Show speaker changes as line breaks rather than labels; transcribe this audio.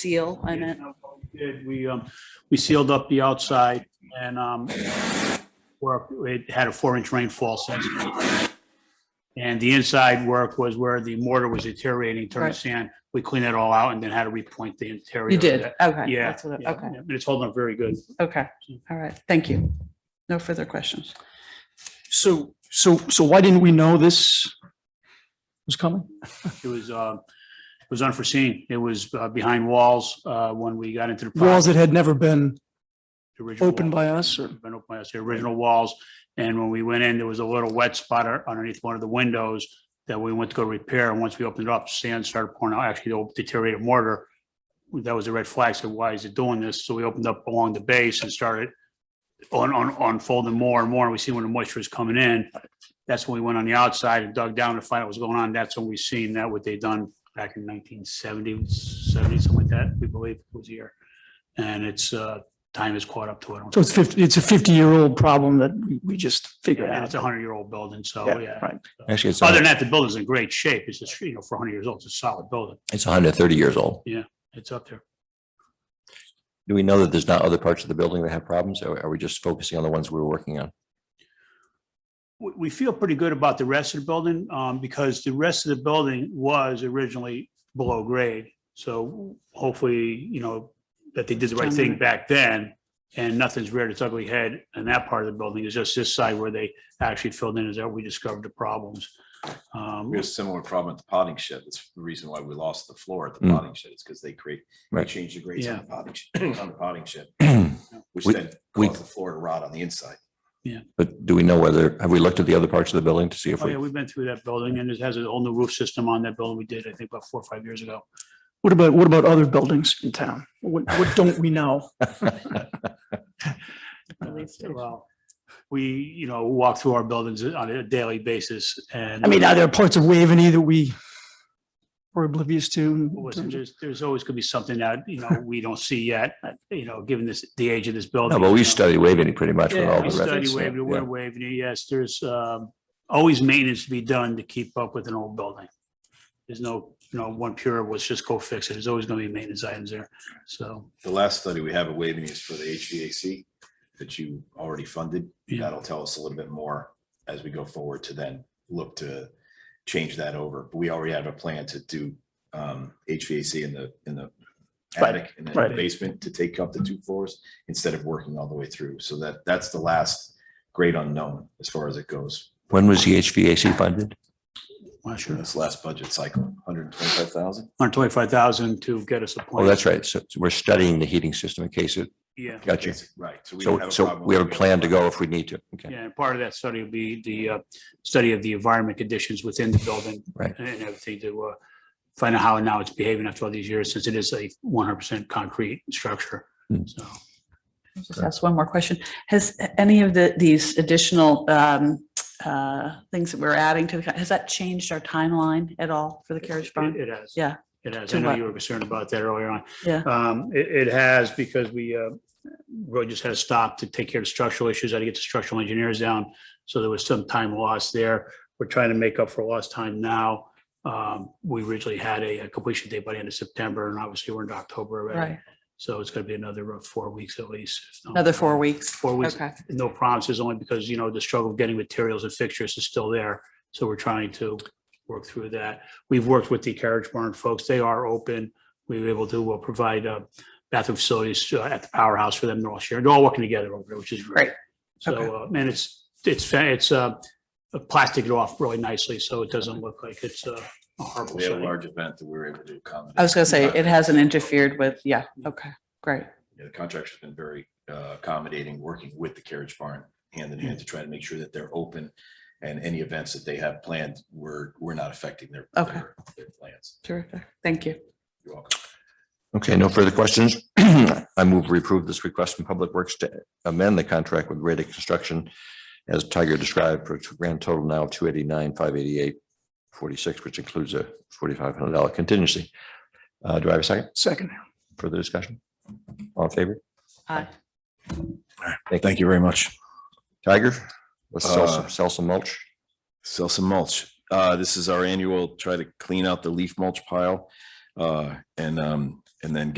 seal, I meant.
did, we, um, we sealed up the outside and, um, work, it had a four inch rainfall since. And the inside work was where the mortar was deteriorating, turned
Right.
to sand. We cleaned it all out and then had to repoint the interior.
You
of
did,
that.
okay.
Yeah.
that's what it-
yeah,
Okay,
yeah, but It's holding up very good.
okay, all right, thank you. No further questions.
So, so, so why didn't we know this was coming?
It was, uh, it was unforeseen. It was, uh, behind walls, uh, when we got into the.
Walls that
property,
had never been
the original
opened
wall.
by us or?
been open by us, the original walls. And when we went in, there was a little wet spot underneath one of the windows that we went to go repair. And once we opened it up, sand started pouring out, actually the deteriorated mortar. That was a red flag. So why is it doing this? So we opened up along the base and started on, on, unfolding more and more. And we see when the moisture was coming in. That's when we went on the outside and dug down to find out what was going on. That's when we seen that what they done back in 1970, 70, something like that, we believe was the year. And it's, uh, time has caught up to it.
So it's fifty, it's a fifty-year-old problem that we- we just figured
Yeah,
out.
it's a hundred year old building, so yeah.
Right.
Actually, it's,
Other
a-
than that, the building's in great shape. It's just, you know, for hundred years old, it's a solid building.
it's 130 years old.
It's up there.
Do we know that there's not other parts of the building that have problems? Or are we just focusing on the ones we were working on?
We, we feel pretty good about the rest of the building, um, because the rest of the building was originally below grade. So hopefully, you know, that they did the right thing back then and nothing's reared its ugly head in that part of the building. It's just this side where they actually filled in is that we discovered the problems. Um,
We had a similar problem at the potting shed. That's the reason why we lost the floor at the
Mm.
potting shed. It's because they create, they
Right.
changed the grades on
Yeah.
the potting, sh- on the potting shed, which
We-
then
we-
caused the floor to rot on the inside.
But do we know whether, have we looked at the other parts of the building to see if
Oh, yeah,
we,
we've been through that building and it has a whole new roof system on that building we did, I think about four or five years ago.
What about, what about other buildings in town? What, what don't we know?
Police station.
Well, We, you know, walk through our buildings on a daily basis and.
I mean, are there parts of Waveney that we were oblivious to? in
Listen,
terms of-
There's, there's always could be something that, you know, we don't see yet, uh, you know, given this, the age of this building.
no, but we
you know.
study Waveney pretty much with
Yeah,
all
we
the
study
reference. yeah,
Waveney, we're
yeah.
Waveney, yes, there's um, always maintenance to be done to keep up with an old building. There's no, you know, one pure, was just go fix it. There's always going to be maintenance items there, so.
The last study we have at Waveney is for the HVAC that you already funded.
Yeah.
That'll tell us a little bit more as we go forward to then look to change that over. But we already have a plan to do um, HVAC in the, in the
Right,
attic and then
right.
the basement to take up the two floors instead of working all the way through. So that, that's the last great unknown as far as it goes.
When was the HVAC funded?
Not
in
sure.
This last budget cycle, 125,000.
Hundred twenty-five thousand to get us a point.
Oh, that's right. So so we're studying the heating system in case it,
Yeah,
got you.
Right. we don't
So,
a
so
problem
we have a
with-
plan to go if we need to. Okay.
yeah, and part of that study will be the uh, study of the environment conditions within the building.
Right.
And everything to uh, find out how now it's behaving after all these years, since it is a one hundred percent concrete structure.
Hmm.
So
I'll Just ask one more question. Has any of the, these additional um, uh, things that we're adding to, the has that changed our timeline at all for the carriage barn?
It it has.
Yeah.
It has.
To
I know
what?
you were concerned about that earlier on.
Yeah.
Um, it, it has because we, uh, really just had to stop to take care of structural issues, had to get the structural engineers down. So there was some time lost there. We're trying to make up for lost time now. Um, we originally had a a completion date by the end of September and obviously we're into October already.
Right,
So it's gonna be another uh, four weeks at least. if not-
another four weeks.
Four weeks,
Okay,
no promises, only because, you know, the struggle of getting materials and fixtures is still there. So we're trying to work through that. We've worked with the carriage barn folks. They are open. We were able to uh, provide uh, bathroom facilities uh, at the powerhouse for them. They're all sharing. They're all working together over there, which is great.
Great.
So, uh, and it's, it's, fa- it's uh, plasticked off really nicely, so it doesn't look like it's uh, a horrible
We had a
site.
large event that we were able to accommodate.
I was going to say, it
Contractor-
hasn't interfered with, yeah, okay, great.
Yeah, The contractor's been very uh, accommodating, working with the carriage barn hand in hand to try to make sure that they're open. And any events that they have planned, we're, we're not affecting their,
Okay.
their their plans.
Terrific. Thank you.
You're welcome.
Okay, no further questions. I move we approve this request from Public Works to amend the contract with Grady Construction as Tiger described for a grand total now of two eighty-nine, five eighty-eight, forty-six, which includes a forty-five hundred dollar contingency. Uh, do I have a second?
Second.
for the discussion? All in favor?
Hi.
Thank you very much.
Tiger, let's sell some,
Uh,
sell some mulch.
Sell some mulch. Uh, this is our annual, try to clean out the leaf mulch pile. Uh, and, um, and then get